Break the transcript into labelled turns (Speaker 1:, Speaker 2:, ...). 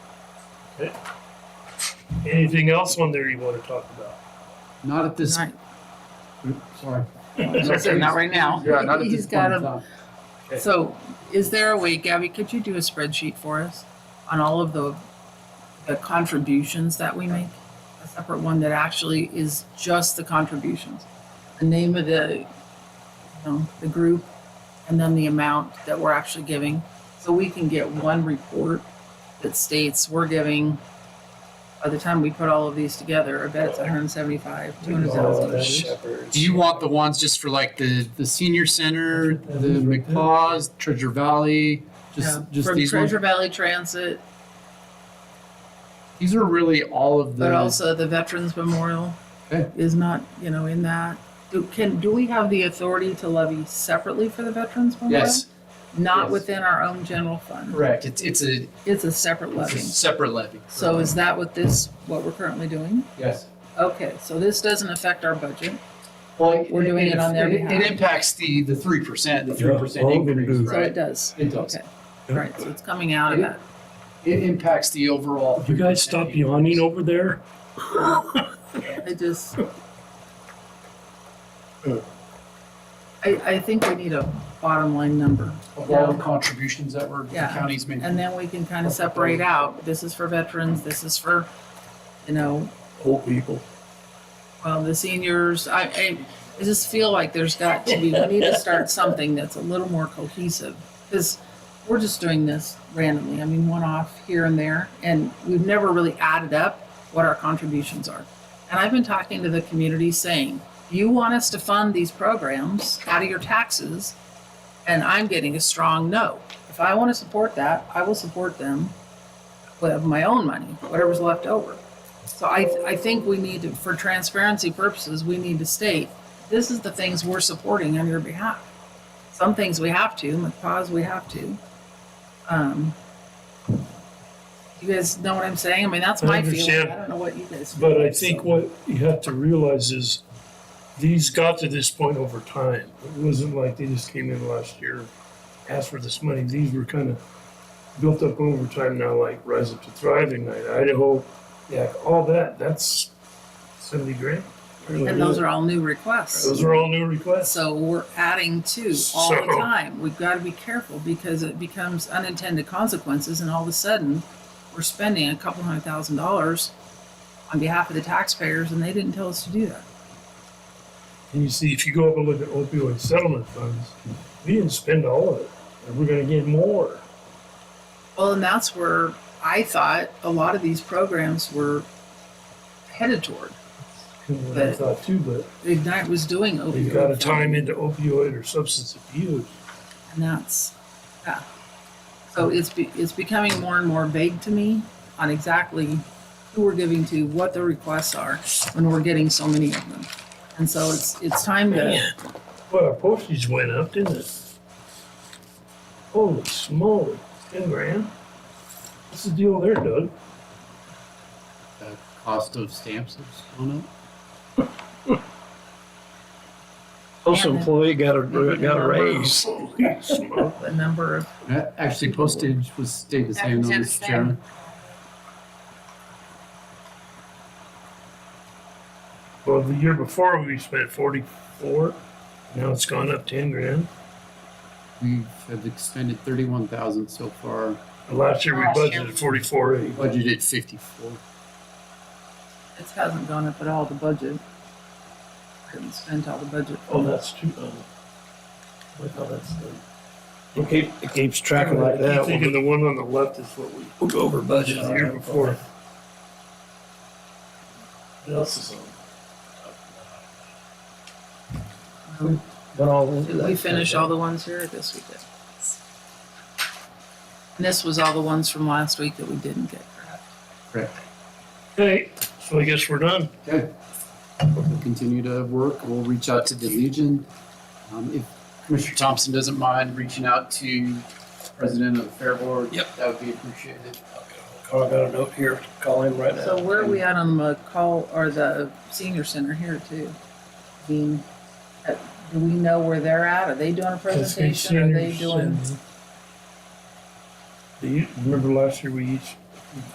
Speaker 1: Okay. Anything else on there you want to talk about?
Speaker 2: Not at this,
Speaker 3: Right.
Speaker 2: sorry.
Speaker 3: So say Not right now.
Speaker 2: Yeah, not at this
Speaker 3: He's got
Speaker 2: point in
Speaker 3: 'em.
Speaker 2: time.
Speaker 3: So is there a way, Gabby, could you do a spreadsheet for us on all of the, the contributions that we make? A separate one that actually is just the contributions, the name of the, you know, the group, and then the amount that we're actually giving. So we can get one report that states we're giving, by the time we put all of these together, I bet it's hundred and seventy-five, two hundred thousand.
Speaker 2: Do you want the ones just for like the, the senior center, the McPaws, Treasure Valley, just, just
Speaker 3: From
Speaker 2: these ones?
Speaker 3: Treasure Valley Transit,
Speaker 2: These are really all of
Speaker 3: But
Speaker 2: the,
Speaker 3: also the Veterans Memorial
Speaker 2: Okay.
Speaker 3: is not, you know, in that. Do, can, do we have the authority to levy separately for the Veterans Memorial?
Speaker 2: yes,
Speaker 3: Not
Speaker 2: Yes.
Speaker 3: within our own general fund.
Speaker 2: correct. It's, it's a
Speaker 3: It's a separate
Speaker 2: it's a
Speaker 3: levy.
Speaker 2: separate levy.
Speaker 3: So is that what this, what we're currently doing?
Speaker 2: Yes.
Speaker 3: Okay, so this doesn't affect our budget.
Speaker 2: Well,
Speaker 3: We're doing it on their
Speaker 2: It
Speaker 3: behalf.
Speaker 2: impacts the, the three percent, the
Speaker 1: Yeah,
Speaker 2: three percent
Speaker 1: all of them
Speaker 2: increase,
Speaker 1: do.
Speaker 3: So it
Speaker 2: right?
Speaker 3: does.
Speaker 2: It does.
Speaker 3: Okay, right, so it's coming out of
Speaker 2: It-
Speaker 3: that.
Speaker 2: It impacts the overall.
Speaker 1: You guys stop
Speaker 2: 3%
Speaker 1: yawning
Speaker 2: increase.
Speaker 1: over there?
Speaker 3: I just. I, I think we need a bottom line number.
Speaker 2: Of all the contributions that were, the
Speaker 3: Yeah.
Speaker 2: counties made.
Speaker 3: And then we can kind of separate out, this is for veterans, this is for, you know,
Speaker 1: Old people.
Speaker 3: well, the seniors. I, I, I just feel like there's got to be, we need to start something that's a little more cohesive. Because we're just doing this randomly, I mean, one off here and there, and we've never really added up what our contributions are. And I've been talking to the community saying, you want us to fund these programs out of your taxes, and I'm getting a strong no. If I want to support that, I will support them with my own money, whatever's left over. So I, I think we need to, for transparency purposes, we need to state, this is the things we're supporting on your behalf. Some things we have to, McPaws we have to. Um, You guys know what I'm saying? I mean, that's
Speaker 1: I
Speaker 3: my feeling.
Speaker 1: understand.
Speaker 3: I don't know what you guys. feel,
Speaker 1: But I
Speaker 3: so.
Speaker 1: think what you have to realize is these got to this point over time. It wasn't like they just came in last year, asked for this money. These were kind of built up over time now, like Rise Up to Thriving Night, Idaho, yeah, all that. That's 70 grand.
Speaker 3: And those are all new requests.
Speaker 1: Those are all new requests.
Speaker 3: So we're adding to all the
Speaker 1: So-
Speaker 3: time. We've got to be careful because it becomes unintended consequences and all of a sudden we're spending a couple hundred thousand dollars on behalf of the taxpayers and they didn't tell us to do that.
Speaker 1: And you see, if you go up and look at opioid settlement funds, we didn't spend all of it. And we're going to get more.
Speaker 3: Well, and that's where I thought a lot of these programs were headed toward.
Speaker 1: Kind of what I
Speaker 3: But-
Speaker 1: thought too, but
Speaker 3: Ignite was doing opioid.
Speaker 1: we've got to time into opioid or substance abuse.
Speaker 3: And that's, yeah. So it's, be- it's becoming more and more vague to me on exactly who we're giving to, what the requests are, when we're getting so many of them. And so it's, it's time to,
Speaker 1: Well, our postage went up, didn't it? Holy smoly, ten grand? What's the deal there, Doug?
Speaker 4: the cost of stamps has gone up.
Speaker 3: Postal
Speaker 5: employee got a,
Speaker 3: got a raise.
Speaker 1: Holy smoke.
Speaker 3: the number of,
Speaker 4: Uh, Actually, postage was stayed the same, though,
Speaker 6: Postage
Speaker 4: Mr.
Speaker 6: is the same.
Speaker 4: Chairman.
Speaker 1: Well, the year before, we spent forty-four, now it's gone up ten grand.
Speaker 4: We have expended thirty-one thousand so far,
Speaker 1: And Last year, we
Speaker 6: Last year.
Speaker 1: budgeted forty-four eight.
Speaker 4: budgeted fifty-four.
Speaker 3: it hasn't gone up at all, the budget. Couldn't spend all the budget.
Speaker 1: Oh, that's too, um, I thought that's the.
Speaker 5: It keep- it keeps tracking
Speaker 1: I
Speaker 5: like
Speaker 1: keep
Speaker 5: that. We'll
Speaker 1: Thinking the one on the left is what we,
Speaker 5: we'll go over budget
Speaker 1: the
Speaker 5: on
Speaker 1: year
Speaker 5: that.
Speaker 1: before. What else is on?
Speaker 5: But all those-
Speaker 3: Did we finish all the ones here? I guess we did. And this was all the ones from last week that we didn't get, correct?
Speaker 4: Correct.
Speaker 1: Okay, so I guess we're done.
Speaker 4: Okay. We'll continue to work. We'll reach out to the Legion. Um, if Commissioner Thompson doesn't mind reaching out to President of the Fair Board,
Speaker 5: Yep.
Speaker 4: that would be appreciated.
Speaker 5: Oh, I got a note here. Call him right now.
Speaker 3: So where are we at on the call or the senior center here too? Being, uh, do we know where they're at? Are they doing a presentation? Are they doing?
Speaker 1: Do you remember last year we each